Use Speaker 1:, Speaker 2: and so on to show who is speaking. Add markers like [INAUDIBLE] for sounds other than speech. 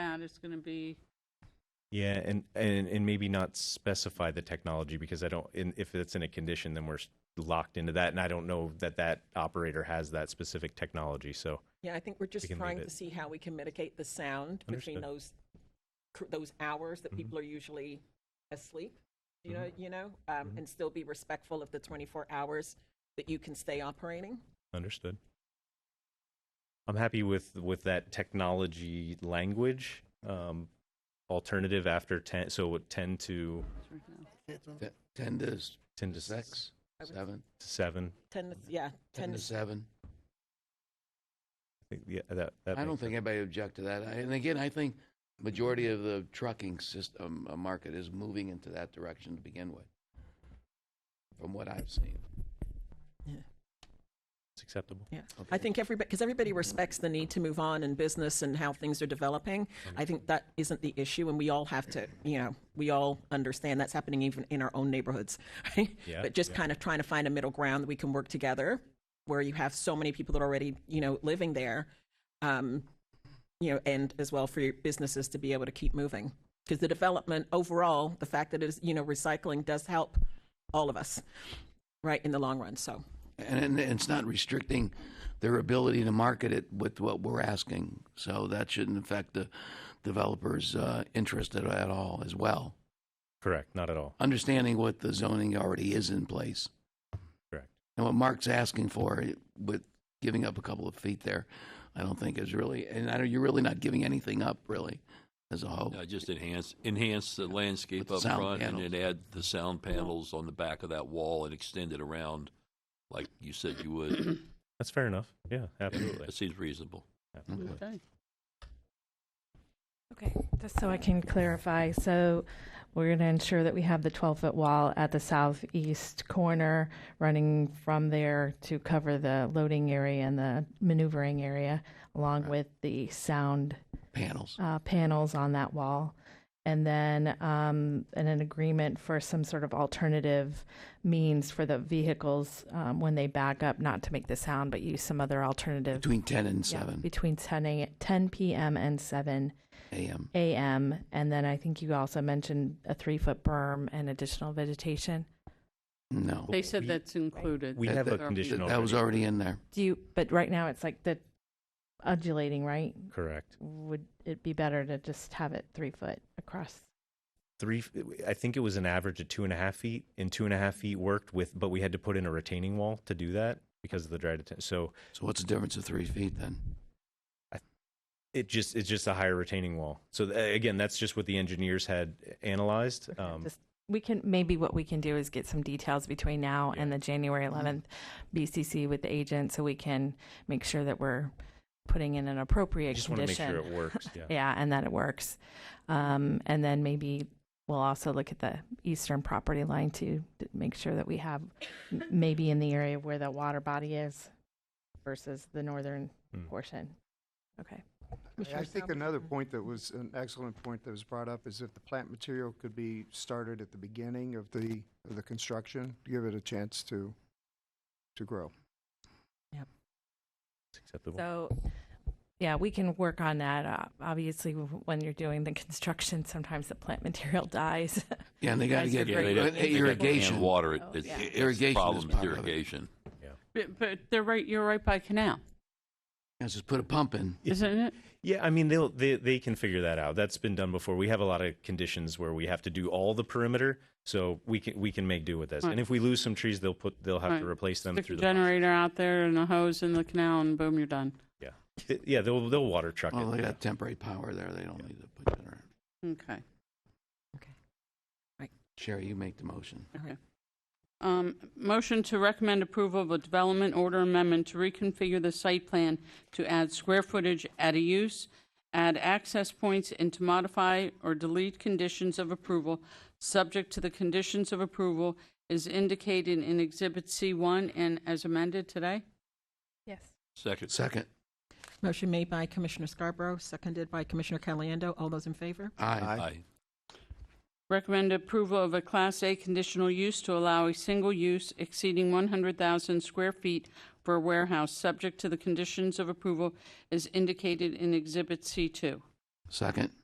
Speaker 1: there's going to be
Speaker 2: Yeah, and, and and maybe not specify the technology because I don't. In, if it's in a condition, then we're s- locked into that, and I don't know that that operator has that specific technology. So
Speaker 3: Yeah, I think we're just
Speaker 2: can leave
Speaker 3: trying
Speaker 2: it.
Speaker 3: to see how we can mitigate the sound between
Speaker 2: Understood.
Speaker 3: those, cr- those hours that
Speaker 2: Mhm.
Speaker 3: people are usually asleep, you
Speaker 2: Mhm.
Speaker 3: know, you know, um,
Speaker 2: Mhm.
Speaker 3: and still be respectful of the 24 hours that you can stay operating.
Speaker 2: understood. I'm happy with with that technology language. Um, alternative after ten, so at ten to
Speaker 1: right now.
Speaker 4: Te- Ten to s-
Speaker 2: ten to s-
Speaker 4: six,
Speaker 3: I would-
Speaker 4: seven,
Speaker 2: 7
Speaker 3: 10, to- yeah, 10
Speaker 4: ten to
Speaker 3: to
Speaker 4: seven.
Speaker 2: I think yeah, that, that
Speaker 4: I don't
Speaker 2: makes
Speaker 4: think
Speaker 2: sense.
Speaker 4: anybody would object to that. I- And again, I think majority of the trucking system, uh, market is moving into that direction to begin with, from what I've seen.
Speaker 2: it's acceptable.
Speaker 3: Yeah, I think everybody, because everybody respects the need to move on in business and how things are developing. I think that isn't the issue, and we all have to, you know, we all understand that's happening even in our own neighborhoods. [LAUGHS] Right?
Speaker 2: Yeah,
Speaker 3: But just
Speaker 2: yeah.
Speaker 3: kind of trying to find a middle ground that we can work together, where you have so many people that are already, you know, living there, um, you know, and as well for your businesses to be able to keep moving. Because the development overall, the fact that it is, you know, recycling does help all of us, right, in the long run. So.
Speaker 4: And, and it's not restricting their ability to market it with what we're asking. So that shouldn't affect the developer's uh, interest at, at all as well.
Speaker 2: Correct, not at all.
Speaker 4: Understanding what the zoning already is in place.
Speaker 2: Correct.
Speaker 4: And what Mark's asking for with giving up a couple of feet there, I don't think is really, and I know you're really not giving anything up really as a whole.
Speaker 5: No, Uh, just enhance, enhance the
Speaker 4: With
Speaker 5: landscape
Speaker 4: the
Speaker 5: up
Speaker 4: sound
Speaker 5: front and
Speaker 4: panels.
Speaker 5: then add the sound panels on the back of that wall and extend it around like you said you would.
Speaker 4: [CLEARS THROAT]
Speaker 2: That's fair enough. Yeah, absolutely.
Speaker 5: That seems reasonable.
Speaker 2: absolutely.
Speaker 1: Okay.
Speaker 6: Okay, just so I can clarify, so we're going to ensure that we have the 12-foot wall at the southeast corner running from there to cover the loading area and the maneuvering area, along with the sound
Speaker 4: Panels.
Speaker 6: uh, panels on that wall. And then um, and an agreement for some sort of alternative means for the vehicles um, when they back up, not to make the sound, but use some other alternative
Speaker 4: Between 10 and
Speaker 6: Yeah,
Speaker 4: 7
Speaker 6: between 10, a, 10 p.m. and 7
Speaker 4: a.m.
Speaker 6: AM, and then I think you also mentioned a three-foot berm and additional vegetation.
Speaker 4: No.
Speaker 1: They said
Speaker 2: We-
Speaker 1: that's included.
Speaker 2: We have a
Speaker 1: That-
Speaker 2: condition
Speaker 4: That was
Speaker 2: already.
Speaker 4: already in there.
Speaker 6: Do you, but right now it's like the undulating, right?
Speaker 2: Correct.
Speaker 6: Would it be better to just have it three foot across?
Speaker 2: Three, I think it was an average of two and a half feet, and two and a half feet worked with, but we had to put in a retaining wall to do that because of the dry detention. So
Speaker 4: So what's the difference of three feet then?
Speaker 2: it just it's just a higher retaining wall. So th- again, that's just what the engineers had analyzed.
Speaker 6: Okay,
Speaker 2: Um,
Speaker 6: just- We can, maybe what we can do is get some details between now and the January
Speaker 2: Mm-hmm.
Speaker 6: 11th BCC with the agent, so we can make sure that we're putting in an
Speaker 2: I
Speaker 6: appropriate
Speaker 2: just want to make
Speaker 6: condition.
Speaker 2: sure it works. Yeah.
Speaker 6: [LAUGHS] yeah, and that it works. Um, and then maybe we'll also look at the eastern property line too, to make sure that we have m- maybe in the area where the water body is versus the northern
Speaker 2: Mm.
Speaker 6: portion. Okay.
Speaker 7: I think another point that was, an excellent point that was brought up is if the plant material could be started at the beginning of the, of the construction, to give it a chance to, to grow.
Speaker 2: It's acceptable.
Speaker 6: So, yeah, we can work on that. Uh, obviously, w- when you're doing the construction, sometimes the plant material [LAUGHS] dies.
Speaker 4: Yeah, and they got to
Speaker 6: Guys are
Speaker 4: get
Speaker 6: great.
Speaker 4: uh,
Speaker 6: they'd- they'd
Speaker 4: irrigation.
Speaker 5: And water it.
Speaker 6: Oh,
Speaker 5: It's-
Speaker 6: yeah.
Speaker 5: it's the
Speaker 4: Irrigation is
Speaker 5: Problem is
Speaker 4: part of it.
Speaker 5: irrigigation.
Speaker 1: But, but they're right. You're right by canal,
Speaker 4: Let's just put a pump in.
Speaker 2: Yeah.
Speaker 1: isn't it?
Speaker 2: Yeah, I mean they'll they they can figure that out. That's been done before. We have a lot of conditions where we have to do all the perimeter, so we can we can make do with this.
Speaker 1: Right.
Speaker 2: And if we lose some trees, they'll put they'll have to
Speaker 1: Right.
Speaker 2: replace them
Speaker 1: Stick
Speaker 2: through
Speaker 1: a
Speaker 2: the process.
Speaker 1: generator out there and a hose in the canal, and boom, you're done.
Speaker 2: It- Yeah, they'll they'll water truck
Speaker 4: Well,
Speaker 2: it.
Speaker 4: they
Speaker 2: yeah.
Speaker 4: got temporary power there. They don't need to put that around.
Speaker 1: Okay.
Speaker 4: Sherry, you make the motion.
Speaker 1: Um, motion to recommend approval of a development order amendment to reconfigure the site plan to add square footage, add a use, add access points, and to modify or delete conditions of approval subject to the conditions of approval is indicated in Exhibit C1 and as amended today.
Speaker 6: yes.
Speaker 5: Second.
Speaker 4: Second.
Speaker 3: Motion made by Commissioner Scarborough, seconded by Commissioner Caliendo. All those in favor?
Speaker 4: Aye.
Speaker 5: Aye.
Speaker 1: Recommend approval of a Class A conditional use to allow a single use exceeding 100,000 square feet for a warehouse, subject to the conditions of approval as indicated in Exhibit C2.
Speaker 4: Second.